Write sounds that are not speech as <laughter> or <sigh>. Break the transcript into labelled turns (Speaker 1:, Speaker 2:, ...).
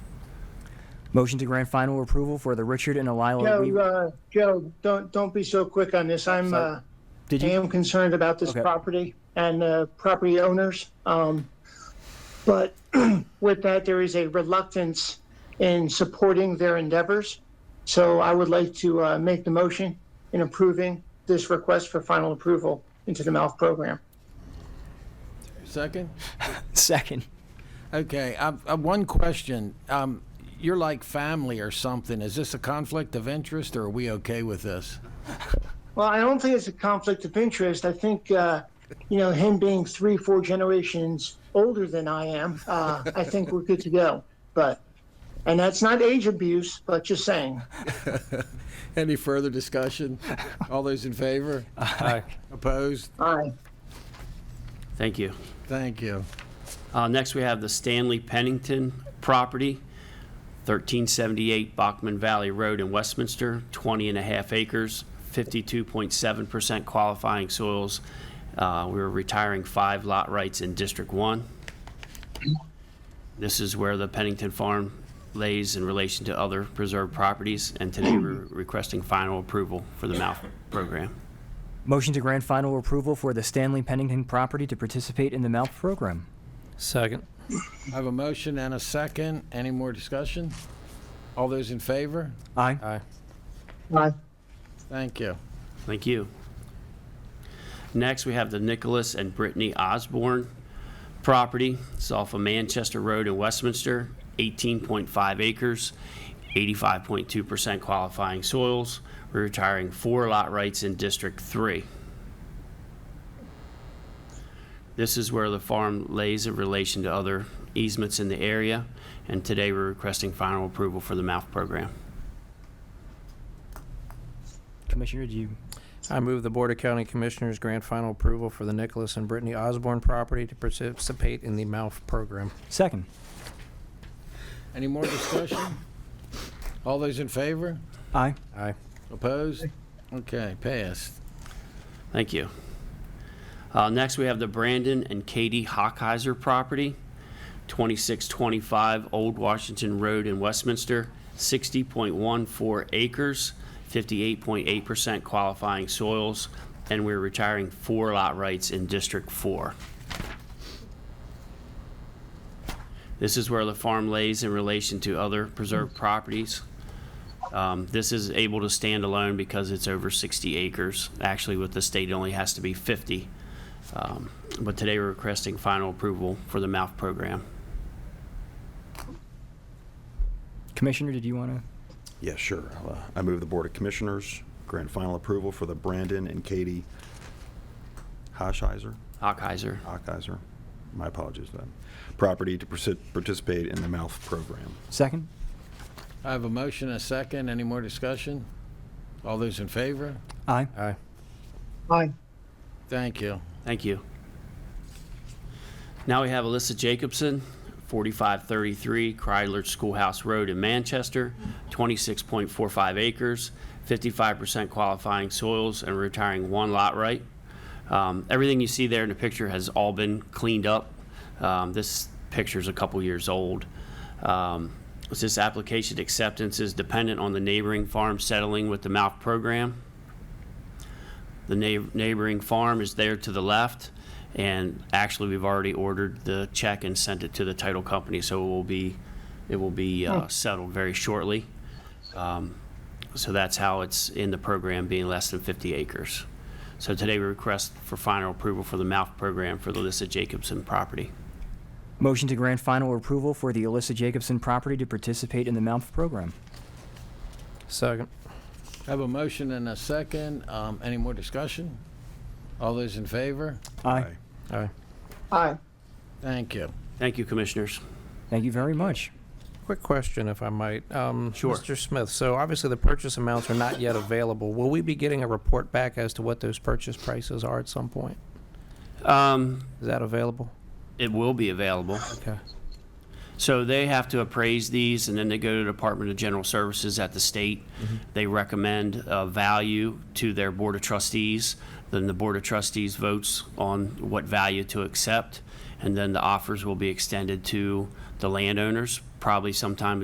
Speaker 1: Motion to grant final approval for the Richard and Elila
Speaker 2: Joe,
Speaker 1: Weaver.
Speaker 2: uh, Joe, don't, don't be so quick on this. I'm,
Speaker 1: Sorry.
Speaker 2: uh,
Speaker 1: Did
Speaker 2: I
Speaker 1: you,
Speaker 2: am concerned about this
Speaker 1: Okay.
Speaker 2: property and uh, property owners. Um, But <clears throat> with that, there is a reluctance in supporting their endeavors. So I would like to uh, make the motion in approving this request for final approval into the MALF program.
Speaker 3: Second?
Speaker 1: second.
Speaker 3: Okay, I've, I've one question. Um, you're like family or something. Is this a conflict of interest or are we okay with this?
Speaker 2: Well, I don't think it's a conflict of interest. I think, uh, you know, him being three, four generations older than I am, uh, I think we're good to go. But, and that's not age abuse, but just saying.
Speaker 3: Any further discussion? All those in favor?
Speaker 4: Aye.
Speaker 3: Opposed?
Speaker 2: Aye.
Speaker 5: Thank you.
Speaker 3: Thank you.
Speaker 5: Uh, Next, we have the Stanley Pennington property, 1378 Bachman Valley Road in Westminster, 20 and a half acres, 52.7% qualifying soils. Uh, We're retiring five lot rights in District 1. This is where the Pennington Farm lays in relation to other preserved properties, and today we're requesting final approval for the MAF program.
Speaker 1: Motion to grant final approval for the Stanley Pennington property to participate in the MALP program.
Speaker 4: Second.
Speaker 3: I have a motion and a second. Any more discussion? All those in favor?
Speaker 1: Aye.
Speaker 4: Aye.
Speaker 2: Aye.
Speaker 3: Thank you.
Speaker 5: Thank you. Next, we have the Nicholas and Brittany Osborne property. It's off of Manchester Road in Westminster, 18.5 acres, 85.2% qualifying soils. We're retiring four lot rights in District 3. This is where the farm lays in relation to other easements in the area, and today we're requesting final approval for the MAF program.
Speaker 1: Commissioner, do you,
Speaker 4: I move the Board of County Commissioners grant final approval for the Nicholas and Brittany Osborne property to participate in the MALF program.
Speaker 1: second.
Speaker 3: Any more discussion? All those in favor?
Speaker 1: Aye.
Speaker 4: Aye.
Speaker 3: Opposed? Okay, passed.
Speaker 5: Thank you. Uh, Next, we have the Brandon and Katie Hockheiser property, 2625 Old Washington Road in Westminster, 60.14 acres, 58.8% qualifying soils, and we're retiring four lot rights in District 4. This is where the farm lays in relation to other preserved properties. Um, This is able to stand alone because it's over 60 acres. Actually, with the state, it only has to be 50. Um, But today, we're requesting final approval for the MAF program.
Speaker 1: Commissioner, did you want to?
Speaker 6: Yeah, sure. Uh, I move the Board of Commissioners grant final approval for the Brandon and Katie Hoshheiser,
Speaker 5: Hockheiser.
Speaker 6: Hochheiser, my apologies for that, property to persi- participate in the MALF program.
Speaker 1: Second?
Speaker 3: I have a motion and a second. Any more discussion? All those in favor?
Speaker 1: Aye.
Speaker 4: Aye.
Speaker 2: Aye.
Speaker 3: Thank you.
Speaker 5: Thank you. Now we have Alyssa Jacobson, 4533 Kreidler Schoolhouse Road in Manchester, 26.45 acres, 55% qualifying soils, and retiring one lot right. Um, Everything you see there in the picture has all been cleaned up. Um, This picture's a couple years old. Um, This application acceptance is dependent on the neighboring farm settling with the MALP program. The neigh- neighboring farm is there to the left, and actually, we've already ordered the check and sent it to the title company, so it will be, it will be uh, settled very shortly. Um, So that's how it's in the program, being less than 50 acres. So today, we request for final approval for the MAF program for the Alyssa Jacobson property.
Speaker 1: Motion to grant final approval for the Alyssa Jacobson property to participate in the MALP program.
Speaker 4: Second.
Speaker 3: I have a motion and a second. Um, Any more discussion? All those in favor?
Speaker 1: Aye.
Speaker 4: Aye.
Speaker 2: Aye.
Speaker 3: Thank you.
Speaker 5: Thank you, Commissioners.
Speaker 1: Thank you very much.
Speaker 4: Quick question, if I might. Um,
Speaker 5: Sure.
Speaker 4: Mr. Smith, so obviously the purchase amounts are not yet available. Will we be getting a report back as to what those purchase prices are at some point?
Speaker 5: Um,
Speaker 4: Is that available?
Speaker 5: It will be available.
Speaker 4: Okay.
Speaker 5: So they have to appraise these, and then they go to the Department of General Services at the state. They recommend a value to their Board of Trustees. Then the Board of Trustees votes on what value to accept, and then the offers will be extended to the landowners, probably sometime